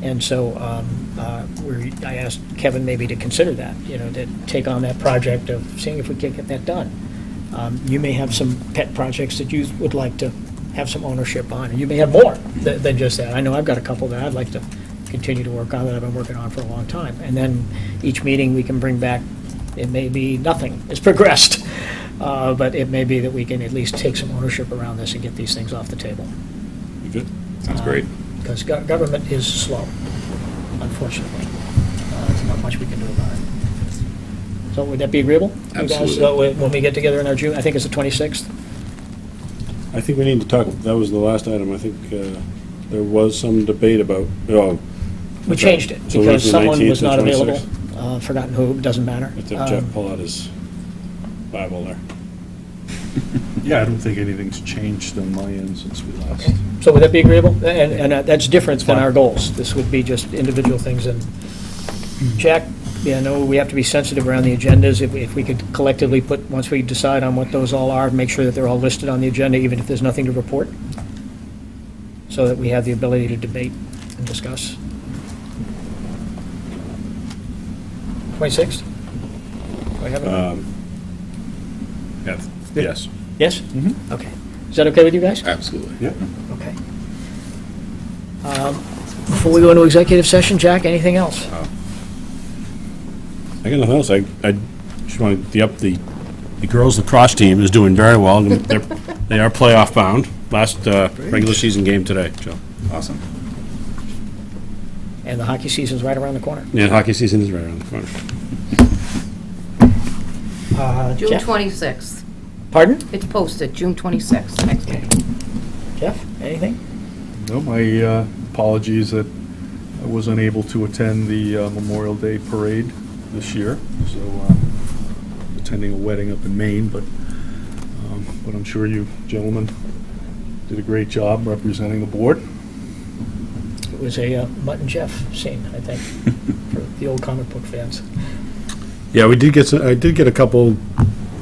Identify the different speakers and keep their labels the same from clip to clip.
Speaker 1: And so um, uh, we're, I asked Kevin maybe to consider that, you know, to take on that project of seeing if we can get that done. Um, You may have some pet projects that you would like to have some ownership on, and you may have more tha- than just that. I know I've got a couple that I'd like to continue to work on that I've been working on for a long time. And then each meeting, we can bring back, it may be nothing, it's progressed, Uh, but it may be that we can at least take some ownership around this and get these things off the table
Speaker 2: Good. Sounds great.
Speaker 1: because government is slow, unfortunately. Uh, There's not much we can do about it. So would that be agreeable? You guys?
Speaker 2: Absolutely.
Speaker 1: So when when we get together in our June, I think it's the 26th,
Speaker 3: I think we need to talk, that was the last item, I think uh, there was some debate about, oh.
Speaker 1: we changed it
Speaker 3: So we're
Speaker 1: because
Speaker 3: from
Speaker 1: someone was
Speaker 3: 19th to
Speaker 1: not available,
Speaker 3: 26th.
Speaker 1: Uh, forgotten who, doesn't matter.
Speaker 3: Let's have Jeff
Speaker 1: Um,
Speaker 3: pull out his Bible there.
Speaker 4: Yeah, I don't think anything's changed on my end since we last.
Speaker 1: So would that be agreeable? And, and uh, that's different than
Speaker 4: Fine.
Speaker 1: our goals. This would be just individual things and Jack, you know, we have to be sensitive around the agendas. If, if we could collectively put, once we decide on what those all are, make sure that they're all listed on the agenda, even if there's nothing to report, so that we have the ability to debate and discuss. 26th? Do I have it?
Speaker 4: Yes. Yes.
Speaker 1: Yes? Okay. Is that okay with you guys?
Speaker 2: Absolutely.
Speaker 4: Yep.
Speaker 1: Okay. Um, Before we go into executive session, Jack, anything else?
Speaker 3: I got nothing else, I, I just wanted to up the, the girls lacrosse team is doing very well, They're- they are playoff bound, last uh, regular season game today, so.
Speaker 4: Awesome.
Speaker 1: And the hockey season's right around the corner.
Speaker 3: Yeah, hockey season is right around the corner.
Speaker 5: June
Speaker 1: Jeff?
Speaker 5: 26th.
Speaker 1: Pardon?
Speaker 5: It's posted, June 26th, next meeting.
Speaker 1: Jeff, anything?
Speaker 4: No, my uh, apologies that I was unable to attend the uh, Memorial Day Parade this year, so uh, attending a wedding up in Maine, but, um, but I'm sure you gentlemen did a great job representing the board.
Speaker 1: It was a uh, Mutt and Jeff scene, I think, for the old comic book fans.
Speaker 3: Yeah, we did get, some- I did get a couple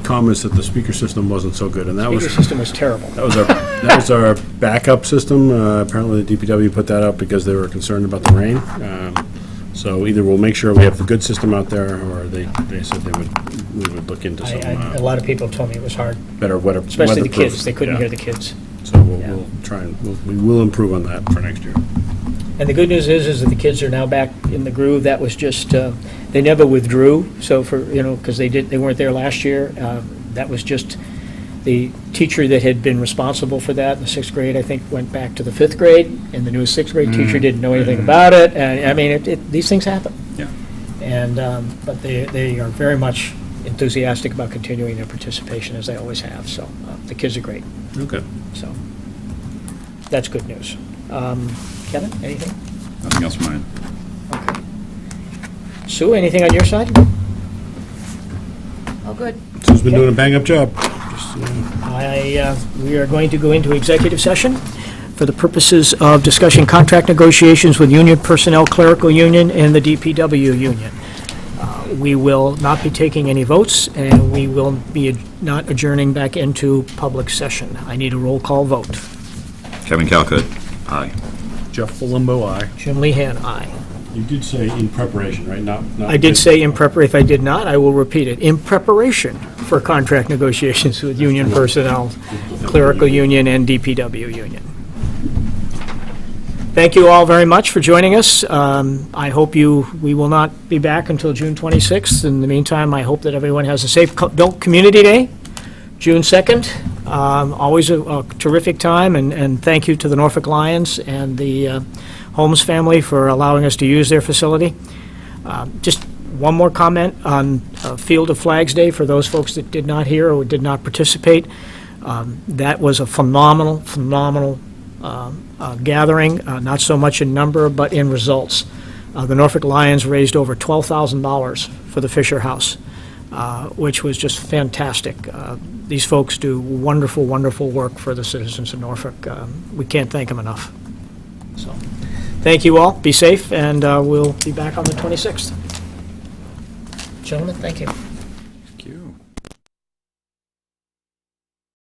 Speaker 3: comments that the speaker system wasn't so good, and that was.
Speaker 1: Speaker system was terrible.
Speaker 3: That was our, that was our backup system. Uh, Apparently, the DPW put that up because they were concerned about the rain. Um, So either we'll make sure we have the good system out there, or they, they said they would, we would look into
Speaker 1: I-
Speaker 3: some
Speaker 1: I- A
Speaker 3: uh,
Speaker 1: lot of people told me it was hard,
Speaker 3: better weather.
Speaker 1: especially the
Speaker 3: weatherproof.
Speaker 1: kids. They couldn't
Speaker 3: Yeah.
Speaker 1: hear the kids.
Speaker 3: So we'll,
Speaker 1: yeah.
Speaker 3: we'll try and, we'll- we will improve on that for next year.
Speaker 1: And the good news is, is that the kids are now back in the groove. That was just, uh, they never withdrew, so for, you know, because they did, they weren't there last year. Uh, That was just, the teacher that had been responsible for that in the sixth grade, I think, went back to the fifth grade, and the new sixth grade teacher didn't know anything about it. And, I mean, it- it, these things happen.
Speaker 4: Yeah.
Speaker 1: And, um, but they, they are very much enthusiastic about continuing their participation, as they always have, so uh, the kids are great,
Speaker 3: Okay.
Speaker 1: so that's good news. Um, Kevin, anything?
Speaker 2: Nothing else from mine.
Speaker 1: Sue, anything on your side?
Speaker 5: Oh, good.
Speaker 3: Sue's been doing a bang-up job. Just, uh,
Speaker 1: I, uh, we are going to go into executive session for the purposes of discussing contract negotiations with union personnel, clerical union, and the DPW union. Uh, We will not be taking any votes, and we will be ad- not adjourning back into public session. I need a roll call vote.
Speaker 2: Kevin Calcutt. Aye.
Speaker 4: Jeff Palumbo, aye.
Speaker 1: Jim Lehan, aye.
Speaker 3: You did say in preparation, right? Not, not.
Speaker 1: I did say in prepar, if I did not, I will repeat it, in preparation for contract negotiations with union personnel, clerical union, and DPW union. Thank you all very much for joining us. Um, I hope you, we will not be back until June 26th. In the meantime, I hope that everyone has a safe Co- Built Community Day, June 2nd. Um, Always a- a terrific time, and, and thank you to the Norfolk Lions and the uh, Holmes family for allowing us to use their facility. Um, Just one more comment on uh, Field of Flags Day, for those folks that did not hear or did not participate. Um, That was a phenomenal, phenomenal um, uh, gathering, uh, not so much in number, but in results. Uh, The Norfolk Lions raised over $12,000 for the Fisher House, uh, which was just fantastic. Uh, These folks do wonderful, wonderful work for the citizens of Norfolk. Um, We can't thank them enough. So, thank you all, be safe, and uh, we'll be back on the 26th. Gentlemen, thank you.